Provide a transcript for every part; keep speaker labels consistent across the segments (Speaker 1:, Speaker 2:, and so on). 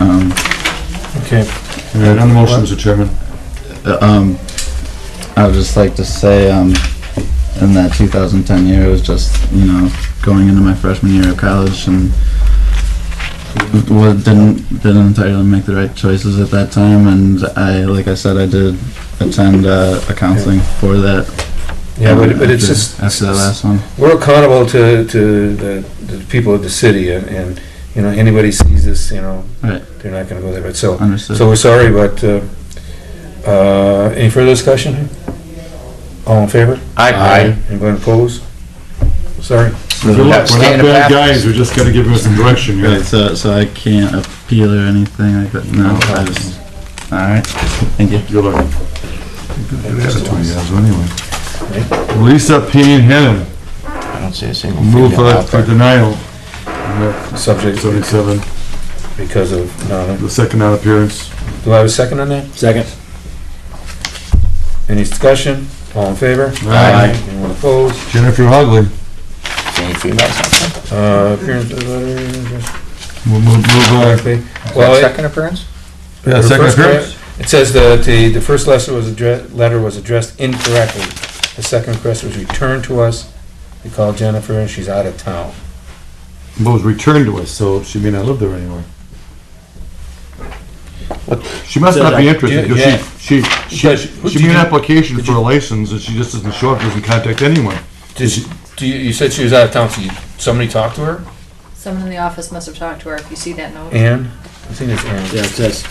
Speaker 1: Um,
Speaker 2: Okay.
Speaker 3: All right, on the motion, Mr. Chairman.
Speaker 1: uh, um, I would just like to say, um, in that 2010 year, it was just, you know, going into my freshman year of college and wa- didn't, didn't entirely make the right choices at that time. And I, like I said, I did attend uh, a counseling for that.
Speaker 2: Yeah,
Speaker 1: um,
Speaker 2: but, but it's
Speaker 1: after-
Speaker 2: just,
Speaker 1: After that last one.
Speaker 2: we're accountable to, to the, the people of the city and, and, you know, anybody sees this, you know,
Speaker 1: Right.
Speaker 2: they're not gonna go there, but so,
Speaker 1: Understood.
Speaker 2: so we're sorry, but, uh, uh, any further discussion? All in favor?
Speaker 1: Aye.
Speaker 2: Anyone opposed? Sorry.
Speaker 1: So-
Speaker 3: Good luck, we're
Speaker 4: Stay in
Speaker 3: not
Speaker 4: the
Speaker 3: bad
Speaker 4: bathroom.
Speaker 3: guys, we just gotta give us some direction, you
Speaker 1: Right, so, so I can't appeal or anything like that? No, I just, alright, thank you.
Speaker 3: Good luck. Good attitude he has, anyway. Lisa P. Hannon,
Speaker 4: I don't see a single
Speaker 3: move
Speaker 4: female
Speaker 3: for
Speaker 4: out
Speaker 3: for
Speaker 4: there.
Speaker 3: denial.
Speaker 2: Subject
Speaker 3: Seventy-seven,
Speaker 2: because of, no, no.
Speaker 3: the second non-appearance.
Speaker 2: do I have a second on that?
Speaker 5: Second.
Speaker 2: Any discussion? All in favor?
Speaker 3: Aye.
Speaker 2: Anyone opposed?
Speaker 3: Jennifer Hogley,
Speaker 4: Any females out there?
Speaker 2: Uh, appearance of letter,
Speaker 3: we'll move, uh, move on.
Speaker 4: Is
Speaker 2: Well,
Speaker 4: that
Speaker 2: it-
Speaker 4: second appearance?
Speaker 3: Yeah,
Speaker 2: The
Speaker 3: second
Speaker 2: first
Speaker 3: appearance.
Speaker 2: letter- It says the, the, the first letter was addressed, letter was addressed incorrectly. The second request was returned to us. We called Jennifer and she's out of town.
Speaker 3: But was returned to us, so she may not live there anymore. She must not be interested,
Speaker 2: Do you-
Speaker 3: because she, she,
Speaker 2: But
Speaker 3: she,
Speaker 2: who
Speaker 3: she
Speaker 2: did
Speaker 3: made an
Speaker 2: you-
Speaker 3: application
Speaker 2: did
Speaker 3: for
Speaker 2: you-
Speaker 3: a license, and she just doesn't show up, doesn't contact anyone.
Speaker 2: Did she, do you, you said she was out of town, so you, somebody talked to her?
Speaker 6: Someone in the office must have talked to her, if you see that note.
Speaker 2: Ann? I think it's Ann.
Speaker 5: Yeah, it says.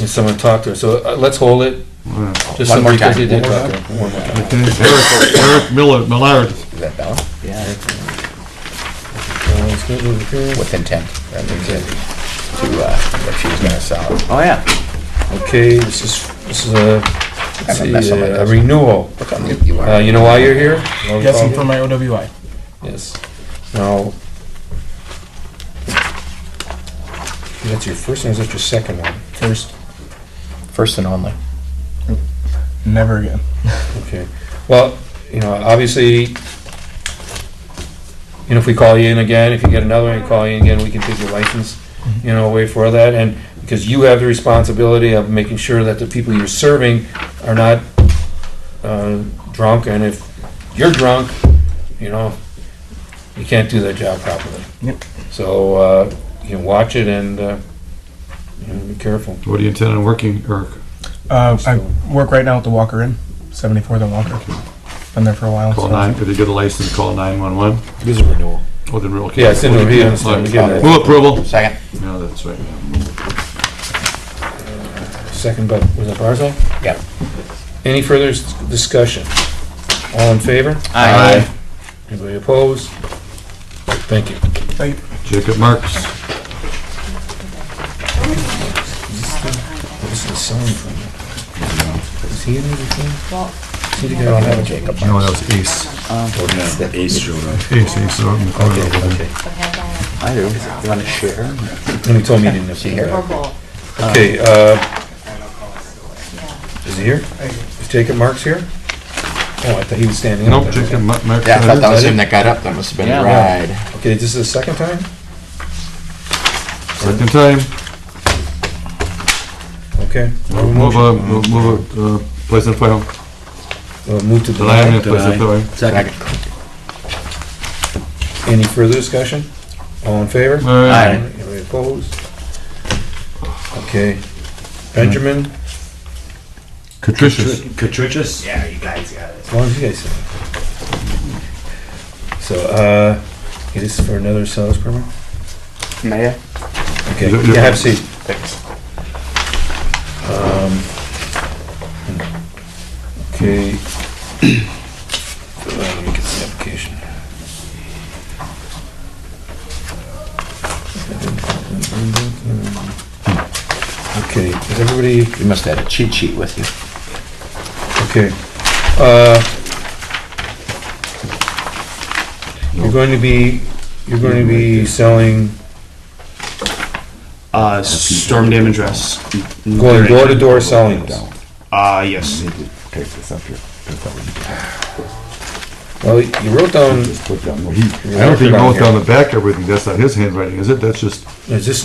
Speaker 2: And someone talked to her. So uh, let's hold it.
Speaker 3: Wow.
Speaker 2: Just
Speaker 4: One more
Speaker 2: because
Speaker 4: time.
Speaker 2: they did
Speaker 4: One more
Speaker 2: talk to her. One more time.
Speaker 3: Uh, Okay, Eric Eric Miller, Millard,
Speaker 4: Is that valid?
Speaker 5: Yeah.
Speaker 2: Uh, let's go to the appearance.
Speaker 4: With intent. That means that to, uh, that she was gonna sell it.
Speaker 5: Oh, yeah.
Speaker 2: Okay, this is, this is a, let's
Speaker 4: Kinda
Speaker 2: see, uh,
Speaker 4: mess up my
Speaker 2: a
Speaker 4: desk.
Speaker 2: renewal.
Speaker 4: Look how mute you
Speaker 2: Uh,
Speaker 4: are.
Speaker 2: you know why you're here?
Speaker 5: Yes, I'm from my OWI.
Speaker 2: Yes. Now, that's your first one, is that your second one?
Speaker 5: First,
Speaker 4: First and only.
Speaker 5: never again.
Speaker 2: Okay. Well, you know, obviously, you know, if we call you in again, if you get another one, we call you in again, we can take your license, you know, away for that, and because you have the responsibility of making sure that the people you're serving are not uh, drunk, and if you're drunk, you know, you can't do that job properly.
Speaker 5: Yep.
Speaker 2: So, uh, you know, watch it and, uh, you know, be careful.
Speaker 3: what do you intend on working, Eric?
Speaker 5: Uh, I work right now at the Walker Inn, 74th and Walker. Been there for a while.
Speaker 3: Call
Speaker 5: so-
Speaker 3: nine, if they get a license, call nine-one-one?
Speaker 2: It is a renewal.
Speaker 3: Oh, then we're okay.
Speaker 2: Yeah, it's in the review, it's in the review.
Speaker 3: Move approval.
Speaker 4: Second.
Speaker 3: No, that's right.
Speaker 2: Second by, was it Barzal?
Speaker 4: Yeah.
Speaker 2: Any further s- discussion? All in favor?
Speaker 4: Aye.
Speaker 2: Anybody opposed? Thank you.
Speaker 5: Thank you.
Speaker 3: Jacob Marks,
Speaker 2: This is signed from you. Is he in anything?
Speaker 6: Well,
Speaker 2: He
Speaker 4: I
Speaker 2: didn't
Speaker 4: don't
Speaker 2: have
Speaker 4: have a
Speaker 2: it.
Speaker 4: Jacob.
Speaker 3: no, that was Ace. Ace, Ace, out in the corner over there.
Speaker 2: Okay,
Speaker 6: but have
Speaker 4: I do. You wanna share?
Speaker 2: okay. And he told me he didn't have
Speaker 4: Is he here?
Speaker 2: it.
Speaker 6: that, or both,
Speaker 2: Okay, uh,
Speaker 6: yeah.
Speaker 2: is he here? Is Jacob Marks here? Oh, I thought he was standing up.
Speaker 3: Nope, Jacob Ma- Marks.
Speaker 4: Yeah, I thought that was
Speaker 2: it?
Speaker 4: him that got up. That must have been
Speaker 5: Yeah.
Speaker 4: a ride.
Speaker 2: Okay, this is the second time?
Speaker 3: Second time,
Speaker 2: Okay.
Speaker 3: move, uh, move- move, uh, place on file.
Speaker 2: Uh, Move to
Speaker 3: Deny,
Speaker 2: deny.
Speaker 3: and place on file.
Speaker 4: Second.
Speaker 2: Any further discussion? All in favor?
Speaker 3: Aye.
Speaker 2: Anybody opposed? Okay. Benjamin,
Speaker 3: Catricious.
Speaker 5: Catrichus? Yeah.
Speaker 2: as long as you guys say. So, uh, it is for another sales permit?
Speaker 4: Mayor?
Speaker 2: Okay,
Speaker 3: Is it-
Speaker 2: yeah, have a seat.
Speaker 4: Thanks.
Speaker 2: Um, Okay. Uh, Let me get the application. Okay, is everybody
Speaker 4: You must have had a cheat sheet with you.
Speaker 2: Okay. Uh, You're going to be, you're going to be selling,
Speaker 7: Uh, storm damage dress.
Speaker 2: going door to door selling this.
Speaker 7: Uh, yes.
Speaker 2: Well, you wrote down.
Speaker 3: I don't think he wrote down the back everything, that's not his handwriting, is it? That's just
Speaker 2: Is this